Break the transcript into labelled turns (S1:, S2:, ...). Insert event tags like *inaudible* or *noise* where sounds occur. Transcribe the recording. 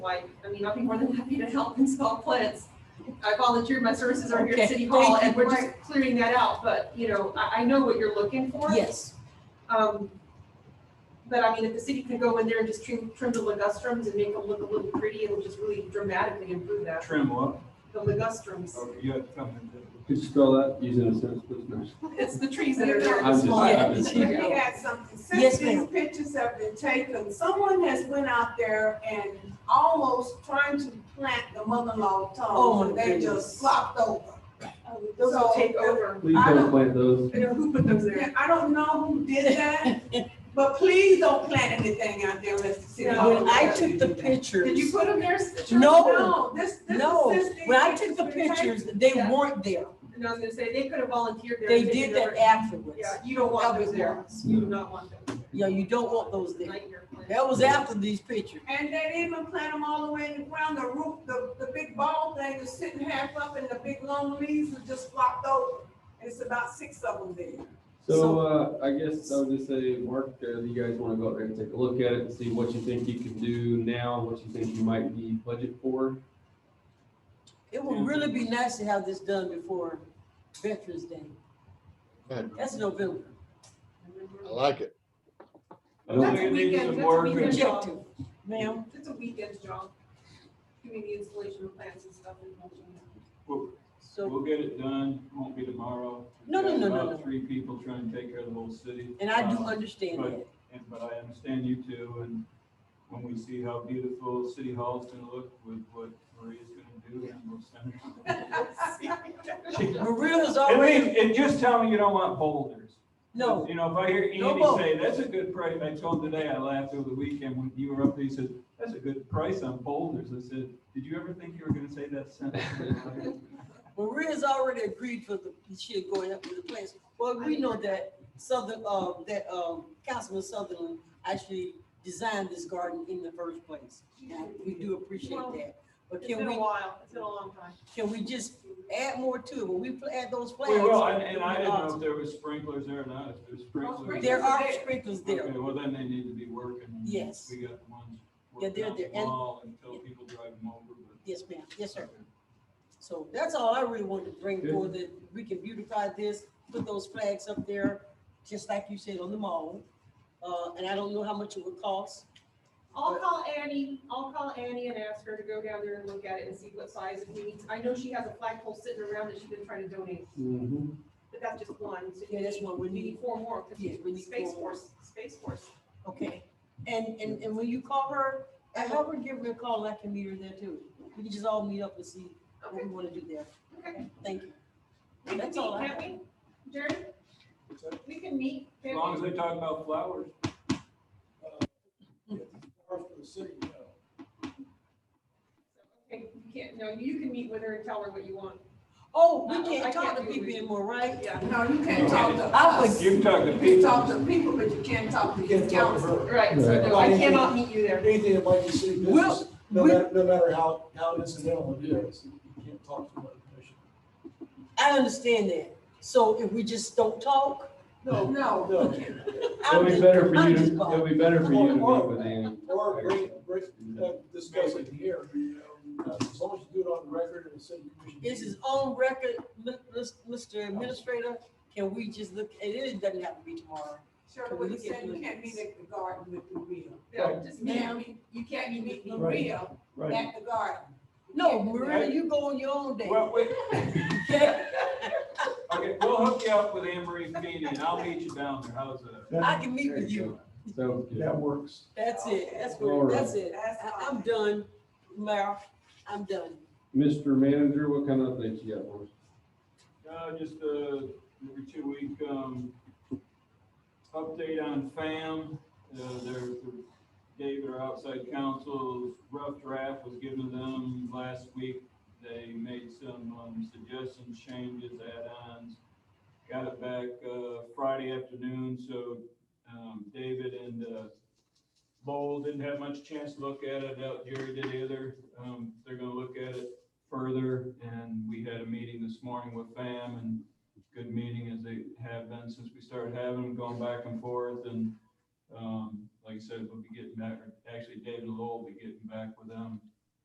S1: why, I mean, I'll be more than happy to help install plants. I volunteered my services over here
S2: Okay,
S1: at City Hall
S2: thank
S1: and
S2: you.
S1: we're just clearing that out, but, you know, I, I know what you're looking for.
S2: Yes,
S1: Um, but I mean, if the city could go in there and just trim, trim the ligustrums and make them look a little pretty, it'll just really dramatically improve that,
S3: Trim what?
S1: the ligustrums.
S3: Oh, you had something to.
S4: Could you spell that using a sentence, please?
S1: It's the trees that are there.
S4: I'm just- I'm
S1: It's
S4: just-
S1: small.
S5: Let me add something,
S2: Yes,
S5: since these
S2: ma'am.
S5: pictures have been taken, someone has went out there and almost trying to plant the mother-in-law
S2: Oh,
S5: tongue, and they
S2: goodness.
S5: just flopped over.
S1: Those will
S5: So,
S1: take over.
S4: Please don't plant those.
S1: You know, who put those there?
S5: Yeah, I don't know who
S2: *laughs*
S5: did that, but please don't plant anything out there, Mr. City
S1: No,
S5: Hall.
S2: when I took the
S1: Did you
S2: pictures,
S1: put them there?
S2: No.
S5: No, this, this is.
S2: no,
S5: since these
S2: when I took
S5: pictures
S2: the
S5: been taken.
S2: pictures, they
S1: Yeah.
S2: weren't there.
S1: And I was gonna say, they could have volunteered there.
S2: They
S1: and taken
S2: did that
S1: over.
S2: afterwards.
S1: Yeah, you don't want those there. You do not want those. there.
S2: Yeah, you don't want those there.
S1: Nightmare plan.
S2: That was after these pictures.
S5: And they didn't even plant them all the way in the ground, the roof, the, the big ball thing is sitting half up and the big long leaves are just flopped over. And it's about six of them there.
S4: So, uh, I guess I would just say, Mark, uh, you guys wanna go out there and take a look at it, and see what you think you can do now, what you think you might need budget for.
S2: It would really be nice to have this done before Veterans Day.
S6: Good.
S2: That's November.
S6: I like it.
S4: I don't
S1: That's
S4: think-
S1: a weekend, that's
S3: Some
S1: a
S3: work.
S1: weekend job.
S2: Objective, ma'am.
S1: It's a weekend job. Doing the installation of plants and stuff and
S2: *laughs*
S1: mulching.
S2: So,
S3: We'll get it done, won't be tomorrow.
S2: No, no,
S3: We've
S2: no,
S3: got
S2: no,
S3: about
S2: no.
S3: Three people trying to take care of the whole city.
S2: and I do
S3: Um,
S2: understand that.
S3: and- But I understand you two, and when we see how beautiful City Hall's gonna look with what Maria's gonna do, and we'll send her.
S2: Maria was
S3: And
S2: already,
S3: leave, and just tell me you don't want boulders.
S2: no,
S3: You know, if I hear
S2: No
S3: Andy say, that's a good price, I told him today, I laughed over the weekend when you were up there, he said, that's a good price on boulders. I said, did you ever think you were gonna say that sentence?
S2: Maria's already agreed for the, she'd go ahead with the plans. Well, we know that Southern, uh, that, um, Councilman Sutherland actually designed this garden in the first place. Now, we do appreciate that, but
S1: It's been
S2: can
S1: a
S2: we,
S1: while, it's been a long time.
S2: can we just add more to it? When we pl- add those
S3: We
S2: flags.
S3: will, and, and I didn't know
S2: uh,
S3: if there was sprinklers there or not, if there's sprinklers.
S2: There are sprinklers there.
S3: Okay, well, then they need to be working. and
S2: Yes.
S3: We got the ones
S2: Yeah,
S3: working
S2: they're
S3: out the
S2: there, and-
S3: wall until people drive them over, but.
S2: Yes, ma'am. Yes, sir. So that's all I really wanted to bring
S4: Good.
S2: forward, that we can beautify this, put those flags up there, just like you said, on the mall. Uh, and I don't know how much it would cost.
S1: I'll call Annie, I'll call Annie and ask her to go down there and look at it and see what size we need. I know she has a flagpole sitting around that she's been trying to donate,
S4: Mhm.
S1: but that's just one. So you
S2: Yeah, that's
S1: need-
S2: one we
S1: You need four more, because
S2: Yeah, we need
S1: Space
S2: four more.
S1: Force, Space Force.
S2: Okay, and, and, and when you call her, I have her give me a call, and I can meet her there too. We can just all meet up and see what
S1: Okay,
S2: we wanna do there.
S1: okay.
S2: Thank you.
S1: We can meet,
S2: That's all I
S1: can't we? Jerry, we can meet.
S3: As
S1: can't
S3: long
S1: we?
S3: as they talk about flowers.
S1: Okay, you can't, no, you can meet with her and tell her what you want.
S2: Oh,
S1: Uh-uh,
S2: we
S1: I
S2: can't talk
S1: can't
S2: to
S1: do it
S2: people
S1: with you.
S2: anymore, right?
S1: Yeah,
S5: No, you can't talk to
S2: I
S5: us. You
S3: You can talk to
S5: can talk
S3: people.
S5: to people, but you can't talk to
S7: You
S5: the
S7: can't talk to
S5: council.
S7: her.
S1: right, so no, I cannot meet you there.
S7: Anything that might be city business, no
S2: Well, we-
S7: matter, no matter how, how incidental it is, you can't talk to another commissioner.
S2: I understand that. So if we just don't talk,
S5: No,
S7: No.
S5: no.
S2: I'm
S4: It'll be
S2: just,
S4: better for
S2: I'm
S4: you,
S2: just
S4: to-
S2: bothered.
S4: it'll be better for you to meet with Ann.
S7: Or bring, bring, uh, discuss it here, you know, uh, as long as you do it on record and the city commission.
S2: This is on record, Mi- mis- Mr. Administrator, can we just look, and it doesn't have to be tomorrow.
S5: Sure, what you said, you can't meet at the garden with Maria.
S1: Yeah, just meet.
S5: Ma'am, you can't meet Maria
S3: Right.
S5: at the garden.
S2: No, Maria, you go on your own day.
S3: Well, wait,
S2: okay?
S3: okay, we'll hook you up with Emery Meany, and I'll meet you down there, how's
S2: *laughs*
S3: that?
S2: I can meet with you.
S4: So,
S7: That works.
S2: That's it. That's
S4: All
S2: what,
S4: right.
S2: that's it.
S5: That's
S2: I-
S5: all.
S2: I'm done, Mayor. I'm done.
S4: Mr. Manager, what kind of things you got for us?
S3: Uh, just, uh, every two week, um, update on FAM, uh, their, David, our outside counsel's rough draft was given to them last week. They made some, um, suggestions, changes, add-ons, got it back, uh, Friday afternoon, so, um, David and, uh, Lowell didn't have much chance to look at it, I doubt Jerry did either, um, they're gonna look at it further, and we had a meeting this morning with FAM, and good meeting as they have been since we started having them, going back and forth, and, um, like I said, we'll be getting back, actually, David Lowell will be getting back with them